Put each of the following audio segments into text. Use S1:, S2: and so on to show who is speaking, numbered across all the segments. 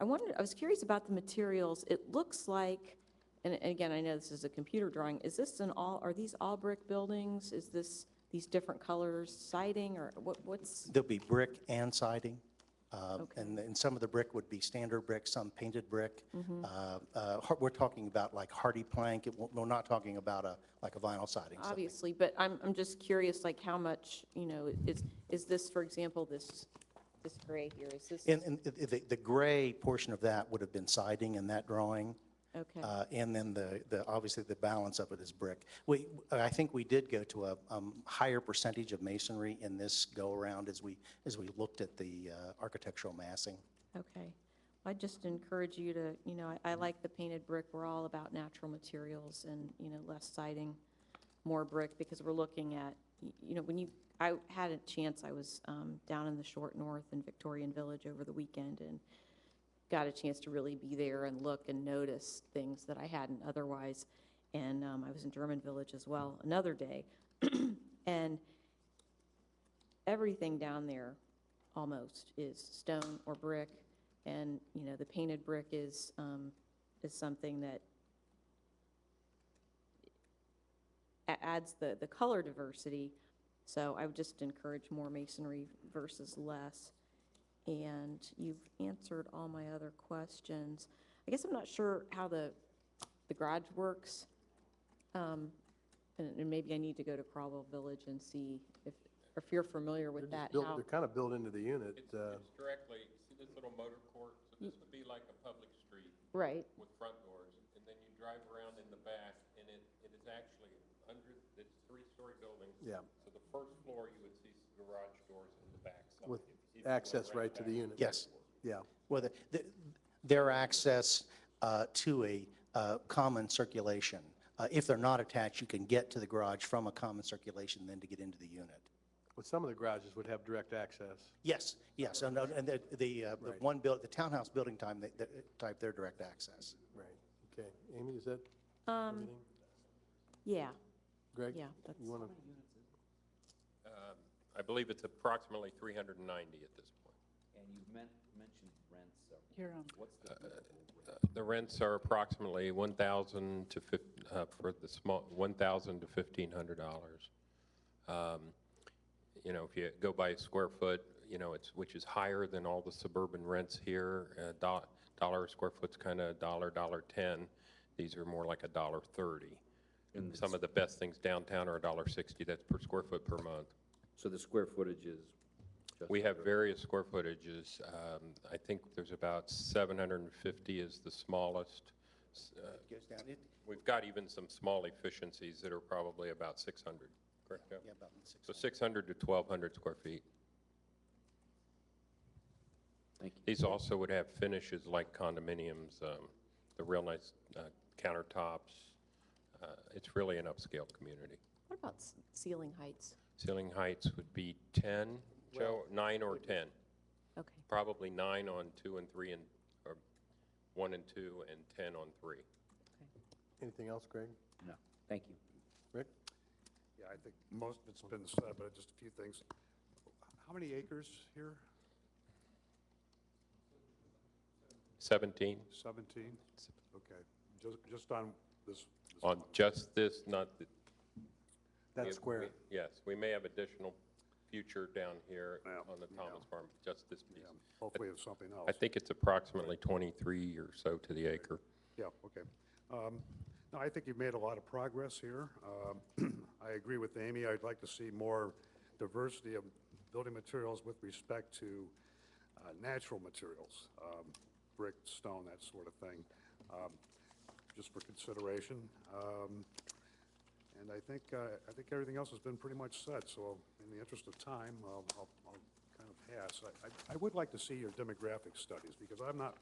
S1: I wanted, I was curious about the materials. It looks like, and and again, I know this is a computer drawing, is this an all, are these all brick buildings? Is this these different colors siding or what, what's,
S2: There'll be brick and siding. uh,
S1: Okay.
S2: And then some of the brick would be standard brick, some painted brick.
S1: Mm-hmm.
S2: Uh, uh, har- We're talking about like hardy plank. It won't- We're not talking about a, like a vinyl siding. something.
S1: obviously, but I'm, I'm just curious, like how much, you know, is, is this, for example, this, this gray here, is this?
S2: And, and the- the, the gray portion of that would have been siding in that drawing.
S1: Okay.
S2: uh, And then the, the, obviously the balance of it is brick. We, I think we did go to a um, higher percentage of masonry in this go-around as we, as we looked at the uh, architectural massing.
S1: Okay. I just encourage you to, you know, I I like the painted brick. We're all about natural materials and, you know, less siding, more brick, because we're looking at, y- you know, when you, I had a chance, I was um, down in the short north in Victorian Village over the weekend and got a chance to really be there and look and notice things that I hadn't otherwise. And um, I was in German Village as well, another day. And everything down there almost is stone or brick. And, you know, the painted brick is, um, is something that a- adds the, the color diversity. So I would just encourage more masonry versus less. And you've answered all my other questions. I guess I'm not sure how the, the garage works. Um, And and maybe I need to go to Crowell Village and see if, if you're familiar with
S3: They're
S1: that.
S3: just built-
S1: how-
S3: They're kind of built into the unit. uh,
S4: It's directly, see this little motor court? So this would be like a public street
S1: Right,
S4: with front doors, and then you drive around in the back, and it, it is actually under, it's three-story buildings.
S3: Yeah.
S4: So the first floor, you would see some garage doors in the back. side,
S3: With
S4: if you see the one
S3: access right to the
S4: back.
S3: unit.
S2: Yes.
S3: Yeah.
S2: Well, the- the- their access uh, to a uh, common circulation. Uh, If they're not attached, you can get to the garage from a common circulation then to get into the unit.
S3: But some of the garages would have direct access.
S2: Yes, yes, and uh, and the, the uh, the
S3: Right.
S2: one build, the townhouse building time, they- they- type, their direct access.
S3: Right. Okay. Amy, is that
S1: um,
S3: everything?
S1: yeah,
S3: Greg?
S1: yeah, that's.
S3: You want to?
S4: Um, I believe it's approximately 390 at this point.
S5: And you've men- mentioned rents, so
S6: You're on.
S5: what's the typical rent?
S4: The rents are approximately 1,000 to, fif- uh, for the small, 1,000 to 1,500 dollars. Um, You know, if you go by square foot, you know, it's, which is higher than all the suburban rents here. uh, do- Dollar a square foot's kind of dollar, dollar 10. These are more like a dollar 30. Some of the best things downtown are a dollar 60, that's per square foot per month.
S5: So the square footage is? just
S4: We have various square footages. Um, I think there's about 750 is the smallest. S- uh,
S2: Goes down, it-
S4: We've got even some small efficiencies that are probably about 600, correct, Jeff?
S2: yeah, about six.
S4: So 600 to 1,200 square feet.
S5: Thank you.
S4: These also would have finishes like condominiums, um, the real nice uh, countertops. Uh, It's really an upscale community.
S1: What about s- ceiling heights?
S4: Ceiling heights would be 10, Joe, nine or 10?
S1: Okay,
S4: Probably nine on two and three and, or one and two and 10 on three.
S3: Anything else, Greg?
S5: No, thank you.
S3: Rick?
S7: Yeah, I think most of it's been said, but just a few things. How many acres here?
S4: 17
S7: Seventeen? Okay, just, just on this, this-
S4: on just this, not the. we-
S3: That square.
S4: we- Yes, we may have additional future down here
S7: Yeah,
S4: on the Thomas Farm, just this piece.
S7: hopefully it's something else.
S4: I think it's approximately 23 or so to the acre.
S7: Yeah, okay. Um, No, I think you've made a lot of progress here. Um, I agree with Amy, I'd like to see more diversity of building materials with respect to uh, natural materials, um, brick, stone, that sort of thing, um, just for consideration. Um, And I think, uh, I think everything else has been pretty much said, so in the interest of time, I'll, I'll I'll kind of pass. I- I, I would like to see your demographic studies, because I'm not,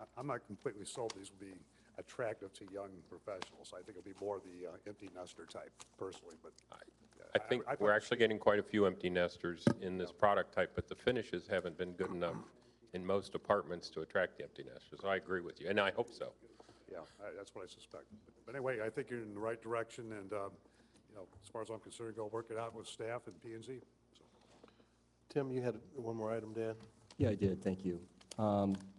S7: I- I'm not completely sold these will be attractive to young professionals. I think it'll be more the uh, empty nester type personally, but.
S4: I think
S7: I- I
S4: we're
S7: thought-
S4: actually getting quite a few empty nesters in this product type, but the finishes haven't been good enough in most apartments to attract the empty nesters. I agree with you, and I hope so.
S7: Yeah, I- that's what I suspect. But anyway, I think you're in the right direction, and, um, you know, as far as I'm concerned, go work it out with staff and P and Z.
S3: Tim, you had one more item, Dan?
S8: Yeah, I did, thank you. Um,